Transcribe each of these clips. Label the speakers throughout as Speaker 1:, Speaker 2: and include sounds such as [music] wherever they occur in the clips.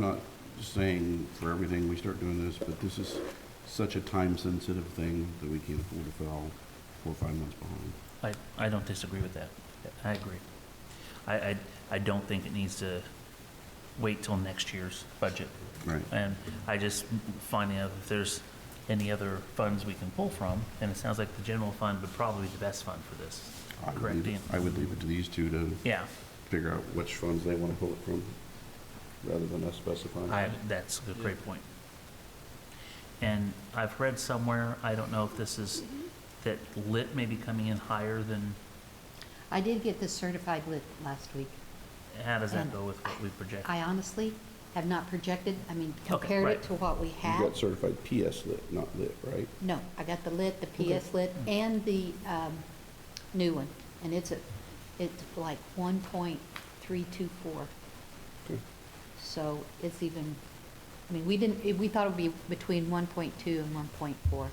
Speaker 1: not saying for everything we start doing this, but this is such a time-sensitive thing that we can't afford to fall four or five months behind.
Speaker 2: I, I don't disagree with that. I agree. I, I, I don't think it needs to wait till next year's budget.
Speaker 1: Right.
Speaker 2: And I just finding out if there's any other funds we can pull from, and it sounds like the general fund would probably be the best fund for this.
Speaker 1: I would
Speaker 2: Correct,
Speaker 1: leave it-
Speaker 2: Ian?
Speaker 1: I would leave it to these two to
Speaker 2: Yeah,
Speaker 1: figure out which funds they want to pull it from, rather than us specifying.
Speaker 2: I, that's a great point. And I've read somewhere, I don't know if this is, that lit may be coming in higher than,
Speaker 3: I did get the certified lit last week.
Speaker 2: how does that
Speaker 3: And
Speaker 2: go with what we project?
Speaker 3: I honestly have not projected, I mean, compared
Speaker 2: right.
Speaker 3: it to what we
Speaker 1: You
Speaker 3: have.
Speaker 1: got certified PS lit, not lit, right?
Speaker 3: No, I got the lit, the PS lit,
Speaker 2: Mm.
Speaker 3: and the um, new one, and it's a, it's like 1.324.
Speaker 1: Okay.
Speaker 3: So it's even, I mean, we didn't, it- we thought it would be between 1.2 and 1.4.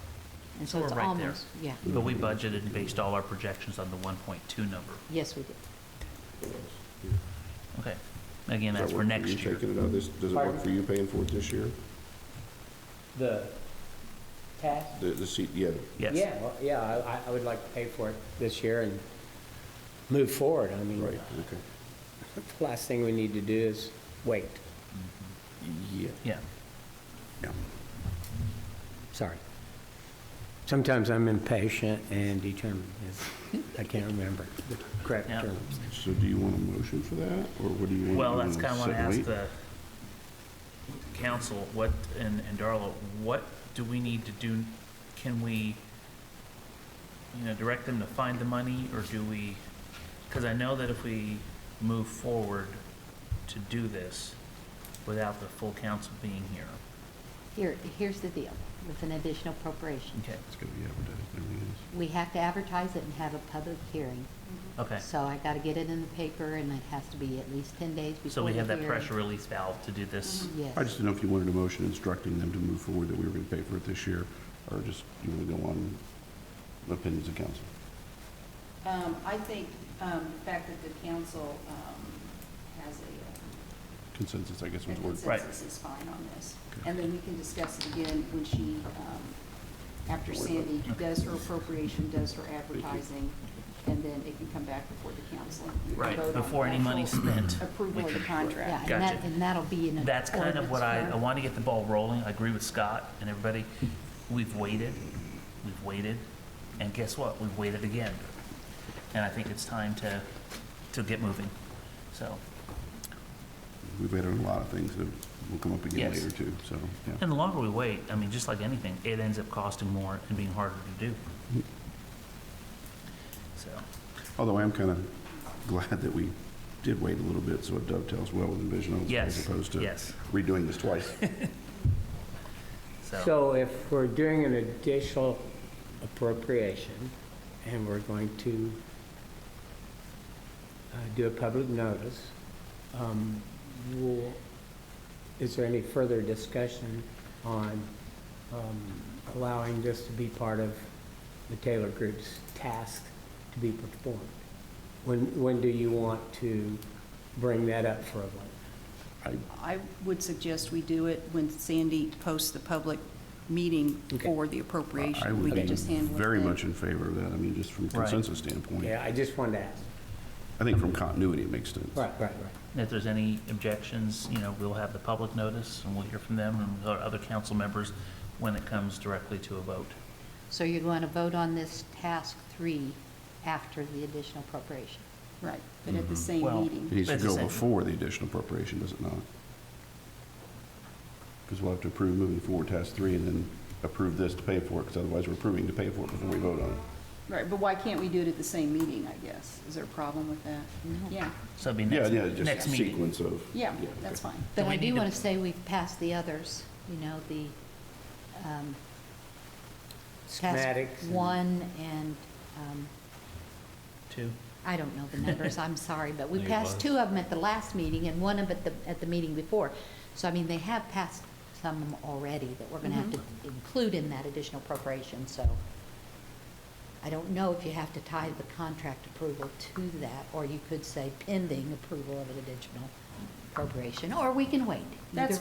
Speaker 3: And
Speaker 2: So
Speaker 3: so it's
Speaker 2: we're right there.
Speaker 3: almost, yeah,
Speaker 2: But we budgeted and based all our projections on the 1.2 number.
Speaker 3: yes, we did.
Speaker 2: Okay. Again,
Speaker 1: Does that
Speaker 2: that's for
Speaker 1: work
Speaker 2: next
Speaker 1: you
Speaker 2: year.
Speaker 1: Taking it out of this, does it work for you paying for it this year?
Speaker 4: The task?
Speaker 1: The, the seat, yeah,
Speaker 2: Yes.
Speaker 4: Yeah, well, yeah, I, I would like to pay for it this year and move forward. I mean,
Speaker 1: right, okay.
Speaker 4: the [laughs] last thing we need to do is wait.
Speaker 1: Yeah.
Speaker 2: Yeah.
Speaker 1: Yeah.
Speaker 4: Sorry. Sometimes I'm impatient and determined. and I can't remember the correct
Speaker 2: Yeah.
Speaker 4: terms.
Speaker 1: So do you want a motion for that, or what do you want?
Speaker 2: Well,
Speaker 1: you
Speaker 2: that's
Speaker 1: wanna
Speaker 2: kind of want to
Speaker 1: sit and
Speaker 2: ask
Speaker 1: wait?
Speaker 2: the council, what, and, and Darla, what do we need to do? Can we, you know, direct them to find the money or do we? Because I know that if we move forward to do this without the full council being here.
Speaker 3: Here, here's the deal with an additional appropriation.
Speaker 2: Okay.
Speaker 1: It's gonna be advertised, and everything else.
Speaker 3: We have to advertise it and have a public hearing.
Speaker 2: Okay.
Speaker 3: So I gotta get it in the paper, and it has to be at least ten days before.
Speaker 2: So we
Speaker 3: the
Speaker 2: have that
Speaker 3: hearing. Mm-hmm.
Speaker 2: pressure release valve to do this.
Speaker 1: I
Speaker 3: Yes.
Speaker 1: just didn't know if you wanted a motion instructing them to move forward that we were gonna pay for it this year, or just you wanna go on the opinions of council.
Speaker 5: Um, I think, um, the fact that the council, um, has a,
Speaker 1: Consensus, I guess
Speaker 5: uh, a
Speaker 1: was the word.
Speaker 2: Right.
Speaker 5: consensus is fine on this.
Speaker 1: Okay.
Speaker 5: And then we can discuss it again when she, um, after Sandy does her appropriation, does her advertising, and then it can come back before the council. and we can
Speaker 2: Right,
Speaker 5: vote on the
Speaker 2: before any money's
Speaker 5: actual
Speaker 2: spent.
Speaker 5: Approval of the
Speaker 3: Yeah,
Speaker 5: contract.
Speaker 3: and that,
Speaker 2: Gotcha.
Speaker 3: and that'll be in. an
Speaker 2: That's kind of what I, I
Speaker 3: ordinance,
Speaker 2: want to get the ball rolling. I agree with Scott and everybody. We've waited, we've waited, and guess what? We've waited again. And I think it's time to, to get moving. So,
Speaker 1: We've had a lot of things that will come up again
Speaker 2: Yes.
Speaker 1: later too, so, yeah.
Speaker 2: and the longer we wait, I mean, just like anything, it ends up costing more and being harder to do. So,
Speaker 1: Although I am kinda glad that we did wait a little bit, so it dovetails well with the vision as
Speaker 2: Yes,
Speaker 1: opposed to
Speaker 2: yes.
Speaker 1: redoing this
Speaker 2: [laughs]
Speaker 1: twice.
Speaker 2: so,
Speaker 4: So if we're doing an additional appropriation and we're going to uh, do a public notice, um, will- is there any further discussion on um, allowing this to be part of the Taylor Group's task to be performed? When, when do you want to bring that up for a vote?
Speaker 1: I
Speaker 5: I would suggest we do it when Sandy posts the public meeting
Speaker 4: Okay.
Speaker 5: for the
Speaker 1: I
Speaker 5: appropriation. We
Speaker 1: would
Speaker 5: can
Speaker 1: be
Speaker 5: just handle it
Speaker 1: very
Speaker 5: then.
Speaker 1: much in favor of that, I mean, just from
Speaker 2: Right.
Speaker 1: consensus standpoint.
Speaker 4: Yeah, I just wanted to ask.
Speaker 1: I think from continuity, it makes sense.
Speaker 4: Right, right, right.
Speaker 2: if there's any objections, you know, we'll have the public notice and we'll hear from them and our other council members when it comes directly to a vote.
Speaker 3: yeah. So you're going to vote on this task three after the additional appropriation.
Speaker 5: Right, but
Speaker 1: Mm-hmm.
Speaker 5: at the same
Speaker 2: Well-
Speaker 5: meeting.
Speaker 1: It needs to
Speaker 2: That's the
Speaker 1: go
Speaker 2: same.
Speaker 1: before the additional appropriation, does it not? Because we'll have to approve moving forward task three and then approve this to pay for it, because otherwise we're approving to pay for it before we vote on it.
Speaker 5: Right, but why can't we do it at the same meeting, I guess? Is there a problem with that? Yeah,
Speaker 2: So it'll be
Speaker 1: Yeah,
Speaker 2: next,
Speaker 1: yeah, just
Speaker 2: next
Speaker 1: a
Speaker 2: meeting.
Speaker 1: sequence of.
Speaker 5: yeah,
Speaker 1: okay.
Speaker 5: that's fine.
Speaker 3: But
Speaker 2: Do we
Speaker 3: I
Speaker 2: need
Speaker 3: do
Speaker 2: to-
Speaker 3: want to say we've passed the others, you know, the, um, task
Speaker 4: Schematics and-
Speaker 3: one and, um,
Speaker 2: Two.
Speaker 3: I don't know the numbers, I'm sorry, but we
Speaker 6: No, you're
Speaker 3: passed
Speaker 6: fine.
Speaker 3: two of them at the last meeting and one of them at the, at the meeting before. So, I mean, they have passed some already that we're gonna have to include in that additional appropriation, so I don't know if you have to tie the contract approval to that, or you could say pending approval of an additional appropriation, or we can wait.
Speaker 5: That's
Speaker 3: Either